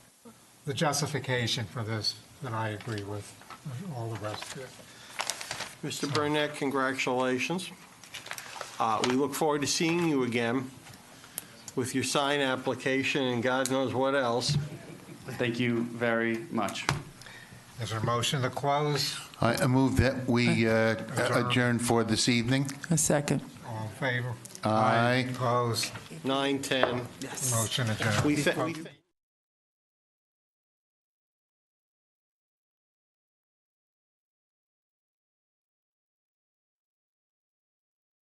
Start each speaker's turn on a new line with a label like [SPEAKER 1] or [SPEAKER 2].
[SPEAKER 1] the justification for this, then I agree with all the rest of it.
[SPEAKER 2] Mr. Burnett, congratulations. Uh, We look forward to seeing you again with your sign application and God knows what else.
[SPEAKER 3] Thank you very much.
[SPEAKER 1] Is there a motion to close?
[SPEAKER 4] I I move that we uh,
[SPEAKER 1] Adjourn.
[SPEAKER 4] adjourn for this evening.
[SPEAKER 5] A second.
[SPEAKER 1] All in favor?
[SPEAKER 4] Aye.
[SPEAKER 1] Opposed?
[SPEAKER 2] 9:10.
[SPEAKER 1] Motion adjourned.
[SPEAKER 2] We thank.